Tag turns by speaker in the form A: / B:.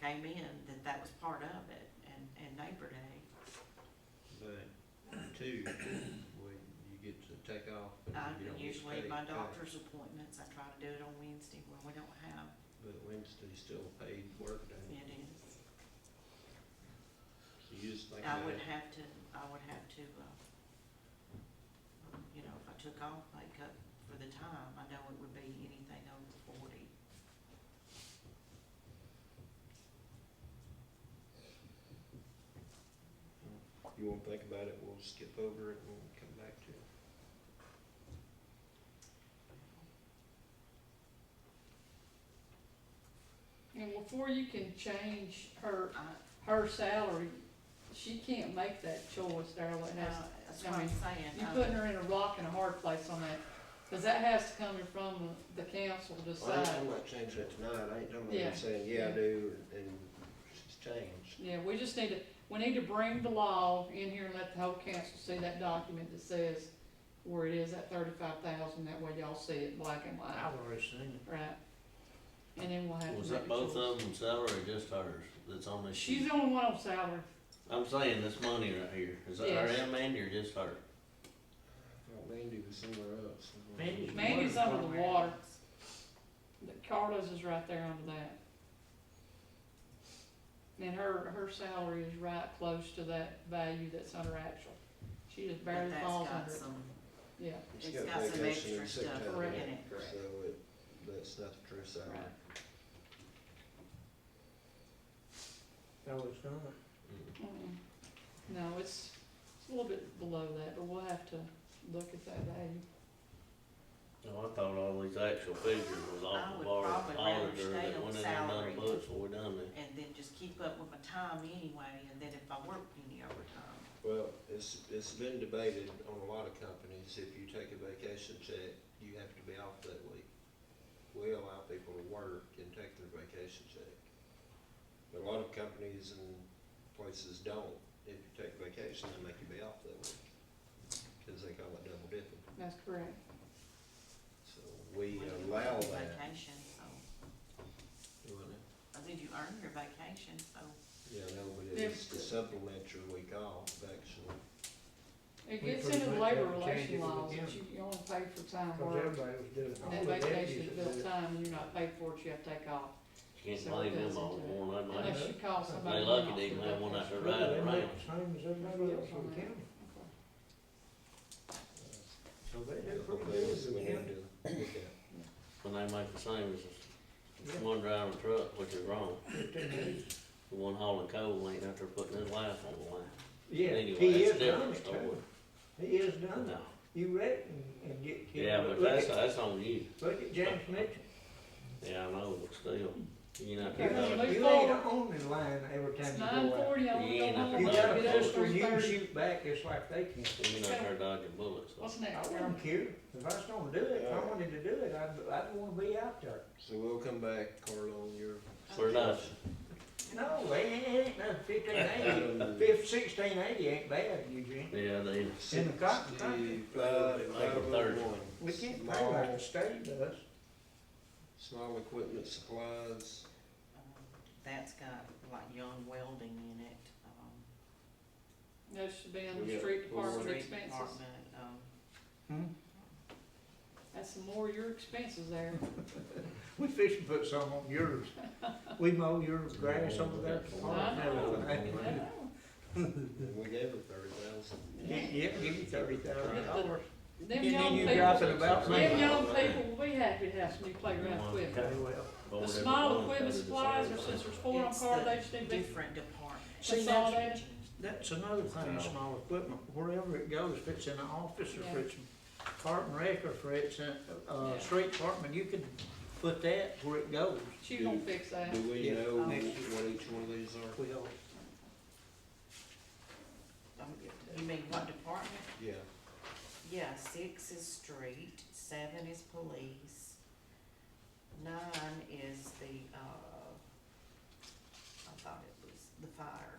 A: came in, that that was part of it, and, and Neighbor Day.
B: But two, when you get to take off. but
A: I
B: you don't uh, get
A: usually,
B: paid
A: my
B: back.
A: doctor's appointments, I try to do it on Wednesday when we don't have,
B: But Wednesday's still a paid work day,
A: it is.
B: so you just think
A: I
B: about
A: would
B: it.
A: have to, I would have to, uh, you know, if I took off makeup for the time, I know it would be anything over forty.
B: You wanna think about it, we'll skip over it and we'll come back to it.
C: And before you can change her, her salary, she can't make that choice, Darla,
A: No,
C: that's,
A: uh, that's what I'm saying.
C: you're
A: I-
C: putting her in a rock and a hard place on that, cause that has to come from the council to
B: I ain't
C: decide.
B: talking about changing it tonight, I ain't talking about
C: Yeah.
B: them saying, yeah, I
C: Yeah.
B: do, and it's changed.
C: Yeah, we just need to, we need to bring the law in here and let the whole council see that document that says where it is, at thirty-five thousand, that way y'all see it black and white,
D: I've already seen it.
C: right? And then we'll have to
E: Was
C: make a
E: that both
C: choice.
E: of them salary or just hers that's on this
C: She's
E: sheet?
C: the only one on salary,
E: I'm saying this money right here, is that her
C: Yes.
E: and Mandy or just her?
B: I thought Mandy was somewhere else.
D: Mandy's-
C: Mandy's
D: Water
C: under the
D: department.
C: water. Carlos is right there under that. And her, her salary is right close to that value that's under actual. She just
A: but
C: barely
A: that's
C: falls
A: got
C: under it,
A: some-
C: yeah.
B: It's
A: It's
B: got
A: got some
B: vacation and
A: extra
B: sick
A: stuff
B: time
C: Correct.
A: in it, correct.
B: So it, that's not the true salary.
C: Right.
D: No, it's not.
E: Mm.
C: Mm-mm. No, it's, it's a little bit below that, but we'll have to look at that value.
E: No, I thought all these actual figures was
A: I
E: off
A: would
E: of our
A: probably rather
E: auditor
A: stay on
E: that went in and
A: salary.
E: done books, so we done that.
A: and then just keep up with my time anyway, and then if I work any overtime.
B: Well, it's, it's been debated on a lot of companies, if you take a vacation check, you have to be off that week. We allow people to work and take their vacation check. But a lot of companies and places don't, if you take vacation, they make you be off that week, cause they call it double dipping,
C: That's correct.
B: so we
A: when you
B: allow
A: earn
B: uh, that.
A: Vacation, so,
B: You wanna-
A: I think you earn your vacation, so,
B: Yeah, no, but
C: There-
B: it's to supplement your week off, actually.
C: It
D: We
C: gets
D: pretty
C: into the
D: much have
C: labor
D: to change
C: relation
D: it
C: laws,
D: again.
C: that you, you only pay for time
D: Cause
C: worked.
D: everybody was doing it.
C: That
D: All the deputies
C: vacation is
D: was
C: built
D: doing
C: time, and you're not paid for it, you have to take off,
E: You Can't
C: So it
E: blame
C: goes
E: them all
C: into
E: for one, they might,
C: unless you call somebody.
E: they
C: else
E: lucky they
C: to
E: even
C: do
E: have one
C: that.
E: out there
D: it.
E: riding
D: They
E: around.
D: make the Same as everybody else in the county,
C: Okay.
D: so they
B: Yeah,
D: do pretty
B: hopefully
D: good in
B: we
D: the
B: need
D: county.
B: to look at.
E: When they make the same
D: Yeah.
E: as one driving truck, which is wrong. The one hauling coal ain't out there putting his life on the line.
D: Yeah,
E: Anyway,
D: he
E: that's
D: is
E: a
D: done
E: different
D: it
E: story.
D: too. He is done
E: No.
D: it. You read it and, and get killed.
E: Yeah, but
D: look
E: that's,
D: at-
E: that's on you.
D: Look at James Mitchell.
E: Yeah, I know, but still, you know, if
C: Okay.
E: you got a
C: Move
D: You ain't
C: forward.
D: on the line every time
C: It's
D: you go
C: nine
D: out.
C: forty, I wanna
E: Yeah,
C: go
E: nothing
C: home,
D: You
E: Well,
D: got
C: I'll
D: a
C: be there at
D: pistol,
C: three
D: you can
C: thirty.
D: shoot back just like they can.
E: You know, they're dodging bullets.
C: What's
D: I
C: next, Darla?
D: wouldn't care. If I was gonna do it, if I wanted to do it, I'd, I'd wanna be out there.
B: So we'll come back, Carl, on your.
E: For nothing.
D: No, it ain't- it ain't no fifteen eighty. Fif- sixteen eighty ain't bad, Eugene.
E: Yeah, they,
D: In the cotton country.
B: Sixty-five,
E: Like a third.
B: one.
D: We can't pay
B: Small-
D: like the state does.
B: Small equipment supplies,
A: um, that's got like young welding in it, um.
C: That should be under
B: We got
C: street department
A: street
C: expenses.
A: department, um,
C: That's some more of your expenses there.
D: We fish and put some on yours. We mow your grass over there. at the farm and everything.
C: I know.
B: we gave her thirty thousand.
D: Yeah, yeah, give you thirty thousand dollars.
C: Them
D: And then
C: young
D: you
C: people,
D: drop it about
E: Yeah,
C: them
E: yeah.
D: me.
C: young people will be happy to have some new playground
E: Yeah.
C: equipment.
D: Very well.
C: The small equipment supplies, or since there's four on
A: It's
C: card,
A: the
C: they just need to be
A: different department.
D: See,
C: consolidated.
D: That's another thing, small equipment, wherever it goes, if it's in an office or
C: Yeah.
D: if it's park and rec or if it's in a,
C: Yeah.
D: a street department, you can put that where it goes.
C: She gonna fix that.
B: Do we
D: Yeah.
B: know
A: Um,
B: what each one of these are?
D: Well,
A: Um, You mean what department?
B: Yeah,
A: Yeah, six is street, seven is police, nine is the, uh, I thought it was the fire.